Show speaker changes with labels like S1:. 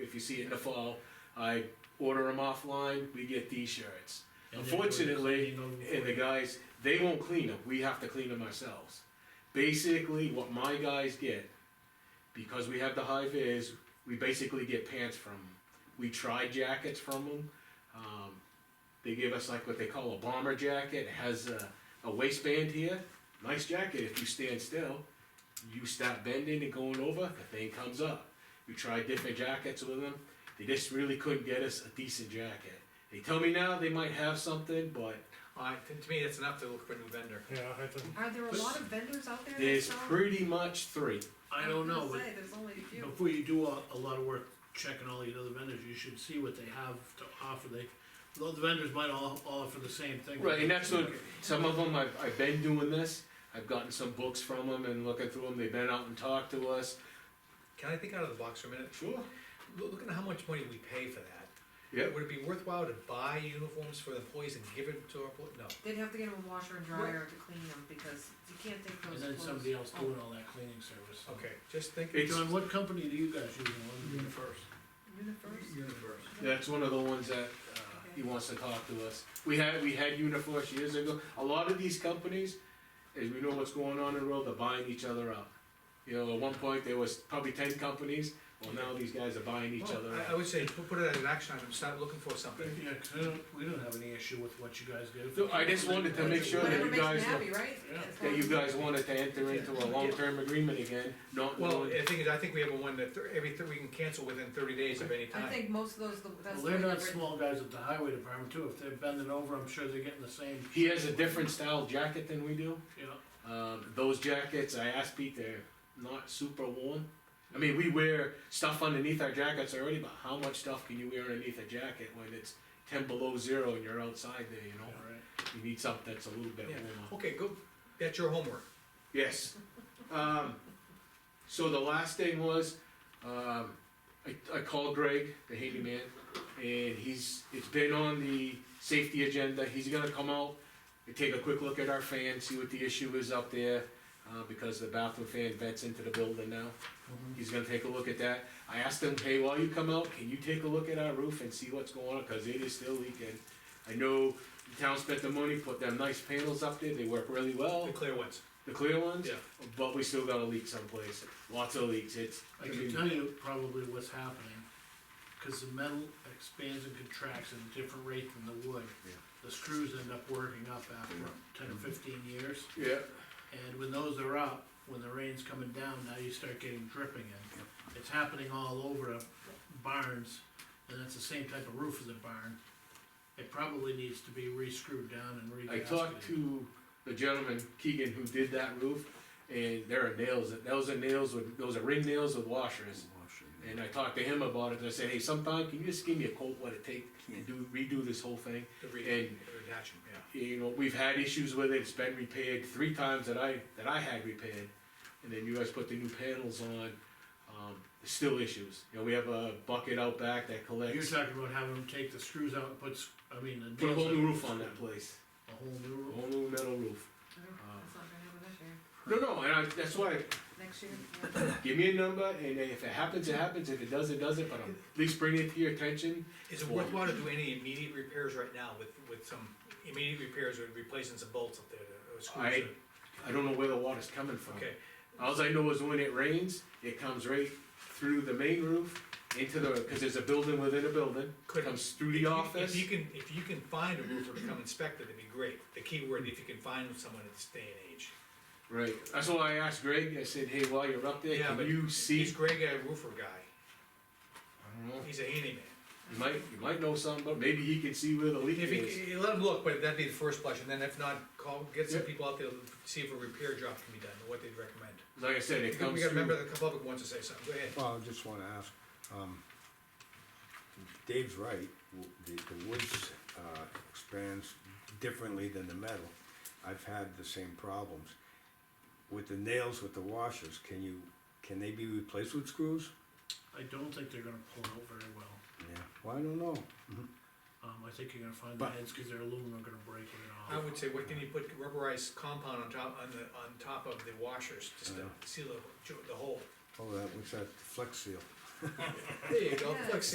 S1: see it in the fall. I order them offline, we get these shirts.
S2: And they're doing
S1: Unfortunately,
S2: cleaning over
S1: and
S2: for
S1: the
S2: you.
S1: guys, they won't clean them, we have to clean them ourselves. Basically, what my guys get, because we have the high vis, we basically get pants from them. We try jackets from them, um, they give us like what they call a bomber jacket, it has a, a waistband here, nice jacket, if you stand still, you stop bending and going over, the thing comes up. We tried different jackets with them, they just really couldn't get us a decent jacket. They tell me now they might have something, but
S3: Uh, to, to me, that's enough to look for a new vendor.
S4: Yeah, I think,
S5: Are there a lot of vendors out there? that
S1: there's
S5: sell-
S1: pretty much three.
S2: I don't
S5: was
S2: know,
S5: gonna
S2: but
S5: say, There's only a few.
S2: before you do a, a lot of work checking all these other vendors, you should see what they have to offer, they, the vendors might all, all offer the same thing.
S1: Right, and that's what, some of them, I've, I've been doing this, I've gotten some books from them and looking through them, they've been out and talked to us.
S3: Can I think out of the box for a minute?
S1: Sure.
S3: Look, look at how much money we pay for that.
S1: Yep,
S3: Would it be worthwhile to buy uniforms for the employees and give it to our, employees? no.
S5: They'd have to get them a washer and dryer to clean them, because you can't take
S2: And
S5: those
S2: then
S5: clothes.
S2: somebody else
S5: Oh,
S2: doing all that cleaning service.
S3: Okay, just think.
S1: It's-
S2: John, what company do you guys use, one of the first?
S5: Universe?
S3: Universe.
S1: that's one of the ones that, uh, he wants to talk to us. We had, we had Uniforce years ago, a lot of these companies, as we know what's going on in the world, they're buying each other up. You know, at one point, there was probably ten companies, well, now these guys are buying each
S3: Well,
S1: other
S3: I, I
S1: up.
S3: would say, put put it as an action item, start looking for something.
S2: Yeah, 'cause I don't, we don't have any issue with what you guys do.
S1: No, I just wanted to make sure that
S5: Whatever
S1: you
S5: makes them
S1: guys
S5: happy, right?
S2: Yeah.
S5: As long
S1: That you
S5: as-
S1: guys wanted to enter into a long-term agreement again, not
S3: Well,
S1: knowing.
S3: the thing is, I think we have a one that thir- every, thir- we can cancel within thirty days of any
S5: I
S3: time.
S5: think most of those, the- that's.
S2: Well,
S5: the
S2: they're
S5: way
S2: not
S5: they're
S2: small guys at the highway department too, if they're bending over, I'm sure they're getting the same,
S1: He has a different style jacket than we do.
S2: you know,
S1: Um, those jackets, I asked Pete, they're not super warm. I mean, we wear stuff underneath our jackets already, but how much stuff can you wear underneath a jacket when it's ten below zero and you're outside there, you know?
S2: right?
S1: You need something that's a little bit
S3: Yeah.
S1: warmer.
S3: Okay, go, that's your homework.
S1: Yes. Um, so the last thing was, um, I, I called Greg, the handyman, and he's, it's been on the safety agenda, he's gonna come out and take a quick look at our fan, see what the issue is up there, uh, because the bathroom fan vents into the building now. He's gonna take a look at that. I asked him, hey, while you come out, can you take a look at our roof and see what's going on, cause it is still leaking. I know the town spent the money, put them nice panels up there, they work really well.
S3: The clear ones.
S1: The clear ones?
S3: Yeah.
S1: But we still got a leak someplace, lots of leaks, it's.
S2: I can tell you probably what's happening, cause the metal expands and contracts at a different rate than the wood.
S1: Yeah.
S2: The screws end up working up after ten or fifteen years,
S1: Yeah,
S2: and when those are up, when the rain's coming down, now you start getting dripping in. It's happening all over barns, and that's the same type of roof as a barn. It probably needs to be re-screwed down and re
S1: I talked to the gentleman, Keegan, who did that roof, and there are nails, those are nails with, those are ring nails with washers. And I talked to him about it, and I said, hey, sometime, can you just give me a quote what it take to do, redo this whole thing?
S3: The re-
S1: And-
S3: redaction, yeah.
S1: You know, we've had issues with it, it's been repaired three times that I, that I had repaired. And then you guys put the new panels on, um, still issues. You know, we have a bucket out back that collects.
S2: You're talking about having them take the screws out and put, s- I mean, the.
S1: Put a whole
S2: nails
S1: new
S2: in.
S1: roof on that place,
S2: A whole
S1: a
S2: new roof.
S1: whole new metal roof.
S5: I don't- That's not gonna happen this year,
S1: No, no, and I, that's why,
S5: next year, yeah.
S1: give me a number, and if it happens, it happens, if it doesn't, it doesn't, but I'm at least bring it to your attention.
S3: Is it worthwhile to do any immediate repairs right now with, with some immediate repairs or replacing some bolts up there to- or screws?
S1: I-
S3: or-
S1: I don't know where the water's coming from.
S3: Okay,
S1: Alls I know is when it rains, it comes right through the main roof, into the, cause there's a building within a building,
S3: Could-
S1: comes through
S3: If
S1: the
S3: you-
S1: office.
S3: If you can, if you can find a roofer to come inspect it, it'd be great. The key word, if you can find someone at this day and age.
S1: Right, that's why I asked Greg, I said, hey, while you're up there,
S3: Yeah,
S1: can
S3: but
S1: you
S3: He's
S1: see?
S3: Greg, a roofer guy.
S1: I don't know,
S3: He's a handyman.
S1: you might, you might know something, but maybe he can see where the leak
S3: If he,
S1: is.
S3: c- let him look, but that'd be the first blush, and then if not, call, get some
S1: Yeah.
S3: people out there, to see if a repair job can be done, or what they'd recommend.
S1: Like I said,
S3: We
S1: it comes
S3: gotta
S1: through.
S3: remember the public wants to say something, go ahead.
S6: Well, I just wanna ask, um, Dave's right, w- the, the woods, uh, expands differently than the metal. I've had the same problems. With the nails, with the washers, can you, can they be replaced with screws?
S2: I don't think they're gonna pull out very well.
S6: Yeah. Well, I don't know,
S2: Um, I think you're gonna find the
S6: But-
S2: heads, cause they're aluminum, are gonna break it
S3: I
S2: off.
S3: would say, what can you put rubberized compound on top, on the, on top of the washers, just to
S6: Yeah.
S3: seal the, the hole?
S6: oh, that, what's that, flex seal?
S3: There you go,
S5: Yeah.
S3: flex